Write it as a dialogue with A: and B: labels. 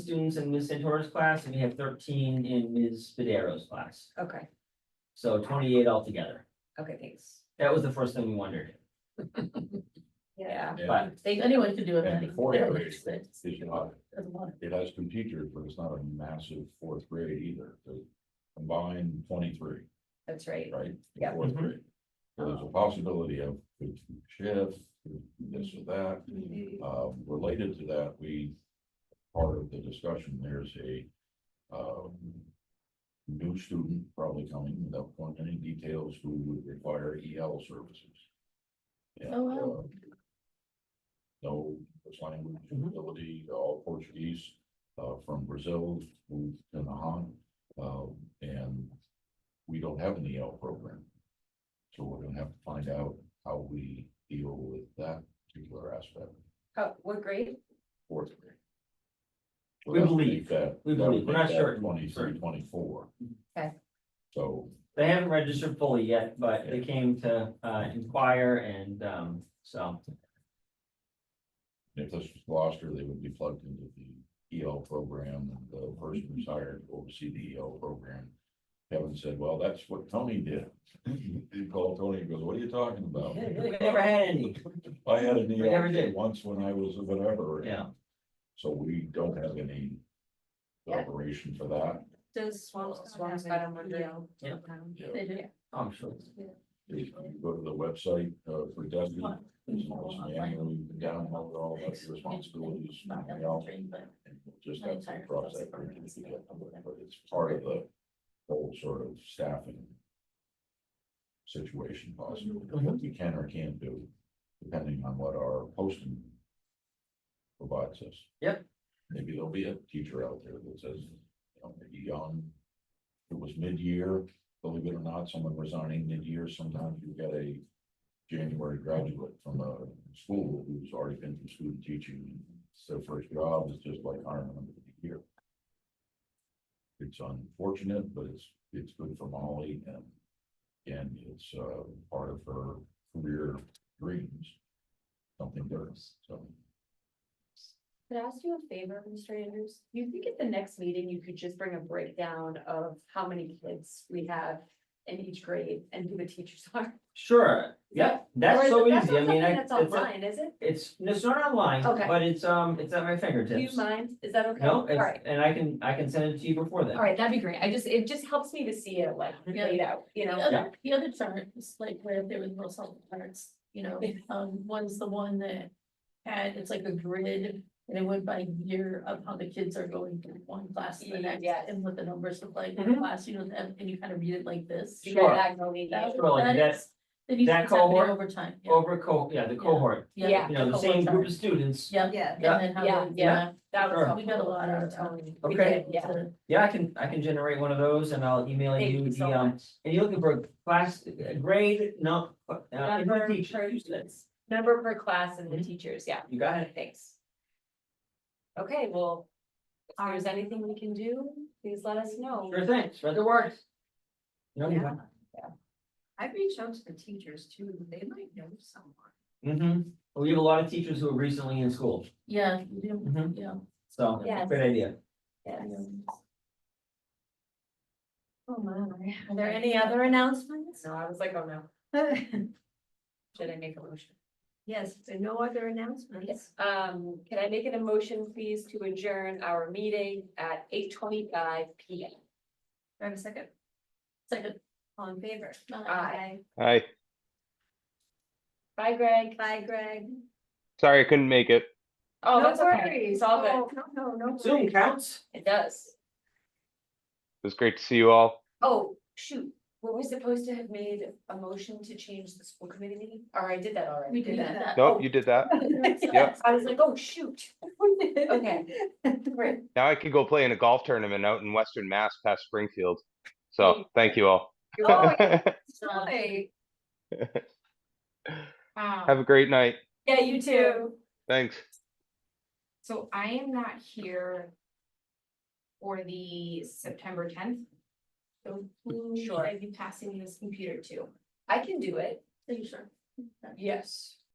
A: students in Ms. Santoro's class, and we have thirteen in Ms. Spidero's class.
B: Okay,
A: So twenty-eight altogether.
B: okay, thanks.
A: That was the first thing we wondered,
B: Yeah,
A: but
C: They, anyone could do it. I
D: And
C: think.
D: fourth
C: They're
D: grade
C: just- it's-
D: is not,
C: it's a lot.
D: it has some teachers, but it's not a massive fourth grade either, so combined twenty-three,
B: that's right.
D: right?
B: Yeah.
D: Fourth grade. So There's a possibility of shift, this or that,
B: Mm-hmm.
D: uh, related to that, we, part of the discussion, there's a, um. New student probably coming without going into any details who would require EL services. And,
C: Oh, wow.
D: uh, No, this language
C: Mm-hmm.
D: ability, all Portuguese, uh, from Brazil, moved to Nahant, um, and we don't have an EL program. So we're gonna have to find out how we deal with that particular aspect
B: How, what grade?
D: fourth grade.
A: We believe, we believe, we're not sure.
D: Twenty-three, twenty-four.
B: Okay.
D: So,
A: they haven't registered fully yet, but they came to uh inquire and um so.
D: if this was Gloucester, they would be plugged into the EL program, and the person who's hired will oversee the EL program. Kevin said, well, that's what Tony did. He called Tony and goes, what are you talking about?
A: We never had any,
D: I had an
A: We never
D: EL
A: did.
D: kid once when I was whatever.
A: yeah.
D: So we don't have any
C: Yeah.
D: operation for that.
B: Does
C: Swan's got a Monday.
A: Yeah.
D: Yeah.
C: They do.
B: Oh,
A: I'm sure.
D: If you go to the website, uh, for
A: Mm-hmm.
D: Dusty, There's always an annual, you can download all of the responsibilities,
C: Not
D: and
C: that
D: we all-
C: much, but-
D: and we'll just have to cross that bridge when we get to it, but it's part of the whole sort of staffing situation possibly, what you can or can't do, depending on what our posting provides us.
A: Yep.
D: Maybe there'll be a teacher out there that says, you know, maybe young, it was mid-year, believe it or not, someone resigning mid-year, sometimes you get a January graduate from a school who's already been through student teaching. It's their first job, it's just like hiring them to be here. It's unfortunate, but it's, it's good for Molly and, and it's, uh, part of her career dreams. Something different, so.
B: Could I ask you a favor, Mr. Andrews? You think at the next meeting, you could just bring a breakdown of how many kids we have in each grade and who the teachers are?
A: Sure, yeah,
B: Or
A: that's
B: is
A: so
B: it- that's
A: easy, I
B: not
A: mean, I,
B: something
A: it's,
B: That's online, is it?
A: it's, it's not online,
B: Okay.
A: but it's um, it's at my
B: Do you
A: fingertips.
B: mind? Is that okay?
A: No,
B: All
A: it's,
B: right,
A: and I can, I can send it to you before
B: all
A: then.
B: right, that'd be great. I just, it just helps me to see it like
C: Yeah.
B: laid out, you
C: The
B: know?
C: other, the other chart is like where there was little salt charts, you know, um, one's the one that had, it's like a grid. And it went by year of how the kids are going from one class to the next
B: Yes. Mm-hmm.
C: and what the numbers look like in
A: Mhm.
C: class, you know, and and you kind of read it like this.
B: You
A: Sure.
B: got diagonal
C: That-
B: lineage.
A: Sure, like
C: that
A: that-
C: is- That needs to
A: that
C: be happening
A: cohort-
C: over time. yeah.
A: Over co, yeah, the cohort,
B: Yeah.
A: you know, the same group of students,
C: Yeah.
B: Yeah.
C: And
A: Yeah.
C: then how,
B: Yeah.
C: they- yeah,
B: That was
A: Sure.
C: we got a lot out of
B: helpful.
C: time.
B: We
A: Okay.
B: did, Yeah.
A: yeah, I can, I can generate one of those and I'll email
B: Thank
A: you
B: you
A: the
B: so
A: um,
B: much.
A: and you're looking for a class, a grade, no, uh, in
B: Number Mm-hmm.
A: the
B: of
A: teacher,
B: per students, number per class and the
A: Mhm.
B: teachers, yeah,
A: you got it,
B: thanks. Okay, well, if there's anything we can do, please let us know.
A: sure thing, spread the word. You know, you got
E: I've reached out to the teachers too, they might know someone.
A: Mm-hmm, we have a lot of teachers who are recently in school,
C: Yeah, you do,
A: Mhm.
C: yeah.
A: so,
B: Yes.
A: great idea.
B: Yes.
C: yeah.
E: Oh, my.
B: Are there any other announcements? No, I was like, oh no, should I make a motion?
E: Yes, there are no other announcements.
B: Um, can I make an emotion, please, to adjourn our meeting at eight twenty-five P M?
E: Do I have a second?
C: Second.
E: All in favor?
C: uh,
B: Aye.
F: Hi,
B: Bye, Greg.
E: Bye, Greg.
F: sorry I couldn't make it.
B: Oh,
E: No
B: that's okay,
E: worries.
B: it's all
E: Oh,
B: good,
E: No, no, no.
A: Zoom
E: worries.
A: counts?
B: it does.
F: It was great to see you all.
B: Oh, shoot, were we supposed to have made a motion to change the school committee meeting? Or I did that already?
C: We did
E: Yeah.
C: that.
F: Nope, you did that.
C: Yeah.
B: I was like, oh, shoot. Okay, great.
F: Now I could go play in a golf tournament out in Western Mass past Springfield. So thank you all.
B: Oh,
F: Have
E: Bye.
G: Um,
F: a great night.
B: yeah, you too.
F: Thanks.
G: so I am not here for the September tenth. So who should I be passing this computer to?
B: I can do it.
C: Are you sure?
G: Yes.